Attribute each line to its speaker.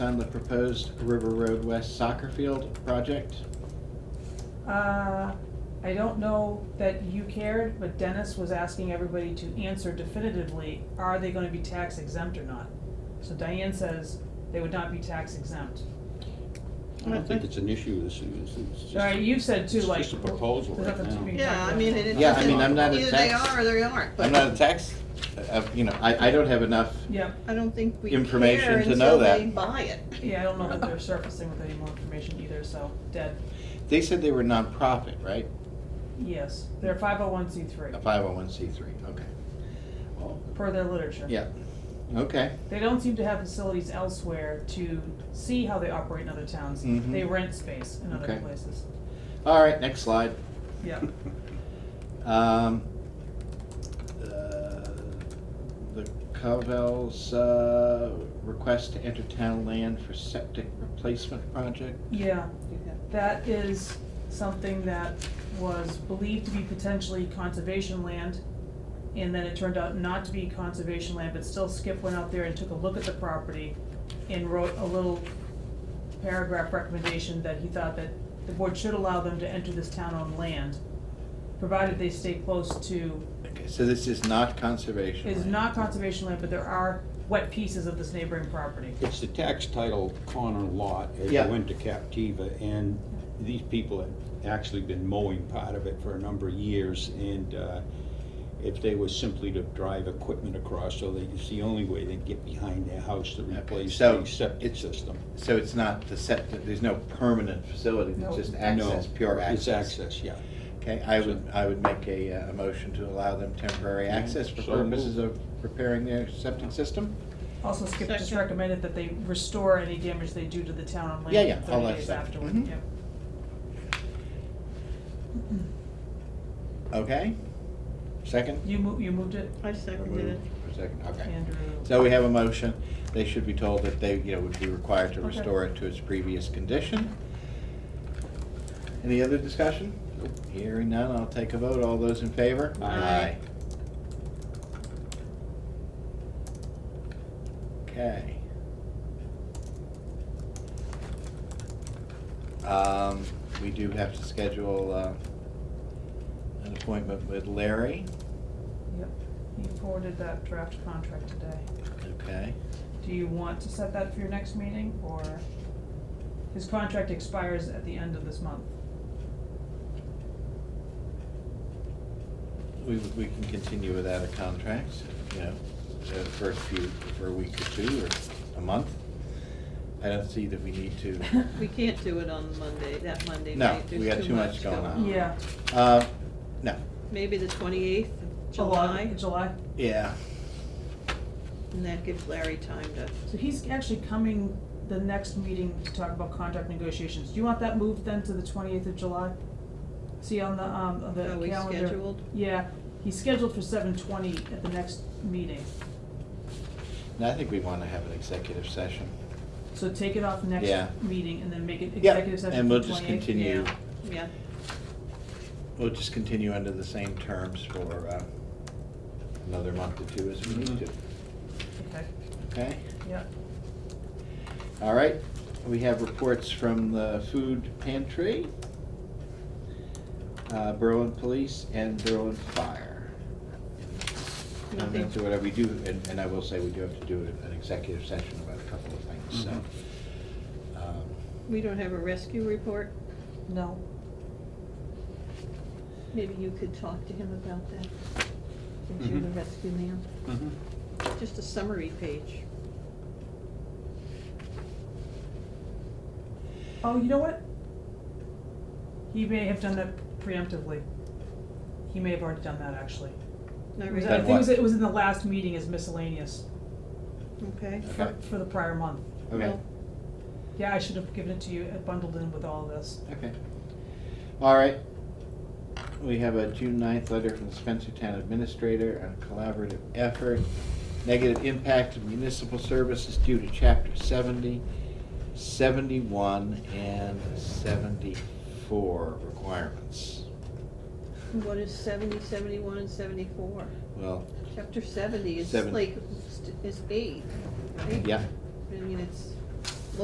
Speaker 1: on the proposed River Road West soccer field project?
Speaker 2: Uh, I don't know that you cared, but Dennis was asking everybody to answer definitively, are they gonna be tax exempt or not? So Diane says they would not be tax exempt.
Speaker 3: I don't think it's an issue, this is, it's just.
Speaker 2: All right, you've said too, like.
Speaker 3: It's just a proposal
Speaker 2: there's
Speaker 3: right
Speaker 2: nothing to
Speaker 3: now.
Speaker 2: be-
Speaker 4: Yeah, I mean, it it
Speaker 1: Yeah, I mean,
Speaker 4: doesn't,
Speaker 1: I'm not a
Speaker 4: either they
Speaker 1: tax-
Speaker 4: are or they aren't,
Speaker 1: I'm not a
Speaker 4: but
Speaker 1: tax, uh, you know, I, I don't have enough,
Speaker 2: Yeah,
Speaker 4: I don't think we
Speaker 1: information
Speaker 4: care
Speaker 1: to know
Speaker 4: until
Speaker 1: that.
Speaker 4: they buy it.
Speaker 2: yeah, I don't know that they're surfacing with any more information either, so, dead,
Speaker 1: they said they were nonprofit, right?
Speaker 2: yes, they're five oh one C three,
Speaker 1: A five oh one C three, okay. Well,
Speaker 2: per their literature.
Speaker 1: Yeah, okay,
Speaker 2: They don't seem to have facilities elsewhere to see how they operate in other towns,
Speaker 1: Mhm.
Speaker 2: they rent space in other
Speaker 1: Okay.
Speaker 2: places,
Speaker 1: all right, next slide.
Speaker 2: yeah.
Speaker 1: Um, uh, The Covell's uh, request to enter town land for septic replacement project.
Speaker 2: Yeah,
Speaker 4: You have-
Speaker 2: that is something that was believed to be potentially conservation land. And then it turned out not to be conservation land, but still Skip went out there and took a look at the property and wrote a little paragraph recommendation that he thought that the board should allow them to enter this town-owned land, provided they stay close to,
Speaker 1: Okay, so this is not conservation.
Speaker 2: is
Speaker 1: land.
Speaker 2: not conservation land, but there are wet pieces of this neighboring property.
Speaker 3: It's the tax title corner lot as you
Speaker 1: Yeah.
Speaker 3: went to Captiva, and these people had actually been mowing part of it for a number of years, and uh, if they were simply to drive equipment across, so they, it's the only way they'd get behind their house to
Speaker 1: Okay,
Speaker 3: replace
Speaker 1: so
Speaker 3: the septic
Speaker 1: it's-
Speaker 3: system.
Speaker 1: So it's not the septic, there's no permanent facility,
Speaker 2: No.
Speaker 1: it's just
Speaker 3: No,
Speaker 1: access, pure access.
Speaker 3: It's access, yeah.
Speaker 1: Okay, I would, I would make a, uh, a motion to allow them temporary
Speaker 3: Yeah,
Speaker 1: access for
Speaker 3: Mm-hmm. so moved.
Speaker 1: purposes of repairing their septic system?
Speaker 2: Also, Skip just
Speaker 4: Second.
Speaker 2: recommended that they restore any damage they do to the town on
Speaker 1: Yeah, yeah,
Speaker 2: land
Speaker 1: all
Speaker 2: thirty
Speaker 1: that
Speaker 2: days
Speaker 1: stuff.
Speaker 2: afterward,
Speaker 1: Mhm.
Speaker 2: yeah.
Speaker 1: Okay? Second?
Speaker 2: You mo- you moved it,
Speaker 4: I seconded it.
Speaker 1: For second, okay.
Speaker 2: Andrew?
Speaker 1: So we have a motion. They should be told that they, you know, would be required to
Speaker 2: Okay.
Speaker 1: restore it to its previous condition. Any other discussion? Hearing none, I'll take a vote. All those in favor?
Speaker 3: Aye.
Speaker 1: Okay. Um, we do have to schedule, uh, an appointment with Larry,
Speaker 2: Yep, you forwarded that draft contract today.
Speaker 1: okay?
Speaker 2: Do you want to set that for your next meeting, or? His contract expires at the end of this month.
Speaker 1: We, we can continue without a contract, you know, uh, for a few, for a week or two or a month. I don't see that we need to,
Speaker 4: We can't do it on Monday, that Monday
Speaker 1: No,
Speaker 4: night,
Speaker 1: we got
Speaker 4: there's
Speaker 1: too
Speaker 4: too
Speaker 1: much
Speaker 4: much
Speaker 1: going
Speaker 4: going
Speaker 1: on.
Speaker 4: on.
Speaker 2: Yeah.
Speaker 1: uh, no,
Speaker 4: Maybe the twenty-eighth of July,
Speaker 2: July.
Speaker 1: yeah,
Speaker 4: and that gives Larry time to,
Speaker 2: So he's actually coming the next meeting to talk about contract negotiations. Do you want that moved then to the twenty-eighth of July? See on the, um, on the
Speaker 4: are
Speaker 2: calendar.
Speaker 4: we scheduled?
Speaker 2: Yeah, he's scheduled for seven twenty at the next meeting,
Speaker 1: and I think we wanna have an executive session.
Speaker 2: so take it off next
Speaker 1: Yeah.
Speaker 2: meeting and then make it
Speaker 1: Yeah,
Speaker 2: executive session
Speaker 1: And
Speaker 2: for
Speaker 1: we'll just
Speaker 2: 28th.
Speaker 1: continue,
Speaker 4: Yeah, yeah,
Speaker 1: we'll just continue under the same terms for, uh, another month or two as we need to,
Speaker 3: Mhm.
Speaker 2: Okay,
Speaker 1: okay?
Speaker 2: yeah,
Speaker 1: All right, we have reports from the food pantry, uh, Berlin Police, and Berlin Fire.
Speaker 4: Nothing.
Speaker 1: Comments or whatever, we do, and, and I will say, we do have to do an executive session about a couple of things, so. um,
Speaker 4: we don't have a rescue report,
Speaker 2: no,
Speaker 4: maybe you could talk to him about that, since you're the
Speaker 1: Mm-hmm.
Speaker 3: Mhm.
Speaker 4: rescue man,
Speaker 3: Mhm.
Speaker 4: just a summary page.
Speaker 2: oh, you know what? He may have done that preemptively, he may have already done that actually.
Speaker 4: Not
Speaker 2: It was-
Speaker 1: Done
Speaker 2: I
Speaker 4: really,
Speaker 2: think it was,
Speaker 1: what?
Speaker 2: it was in the last meeting as miscellaneous,
Speaker 4: okay,
Speaker 2: for,
Speaker 1: Okay.
Speaker 2: for the prior month.
Speaker 1: Okay,
Speaker 4: Well-
Speaker 2: Yeah, I should have given it to you uh, bundled in with all of this.
Speaker 1: okay. All right, we have a June 9th letter from the Spencer Town Administrator on collaborative effort, negative impact of municipal services due to chapter seventy 71 and 74 requirements.
Speaker 4: what is seventy, seventy-one, and seventy-four?
Speaker 1: Well,
Speaker 4: Chapter seventy is
Speaker 1: Seven.
Speaker 4: like, is eight, right?
Speaker 1: yeah,
Speaker 4: I mean, it's,